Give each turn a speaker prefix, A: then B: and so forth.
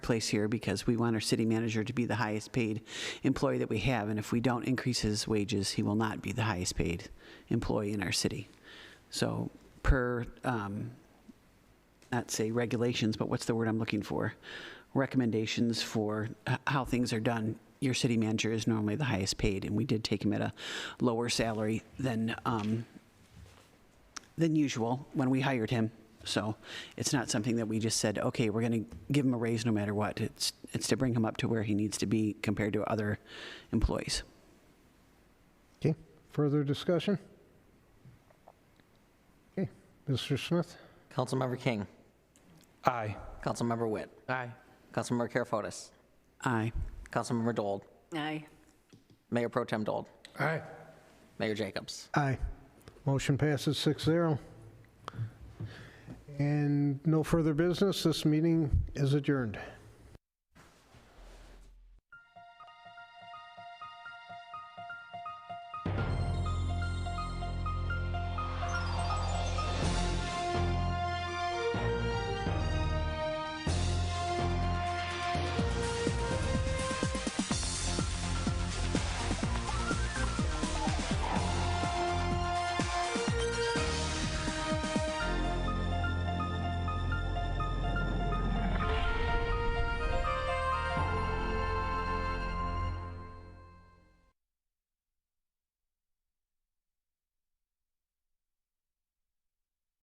A: place here because we want our city manager to be the highest paid employee that we have. And if we don't increase his wages, he will not be the highest paid employee in our city. So per, um, not say regulations, but what's the word I'm looking for? Recommendations for h- how things are done. Your city manager is normally the highest paid, and we did take him at a lower salary than, um, than usual when we hired him. So it's not something that we just said, okay, we're going to give him a raise no matter what. It's, it's to bring him up to where he needs to be compared to other employees.
B: Okay, further discussion? Okay, Mr. Smith?
C: Councilmember King.
D: Aye.
C: Councilmember Witt.
D: Aye.
C: Councilmember Carefotis.
A: Aye.
C: Councilmember Dold.
E: Aye.
C: Mayor Pro Tem Dold.
D: Aye.
C: Mayor Jacobs.
B: Aye. Motion passes 6-0. And no further business, this meeting is adjourned.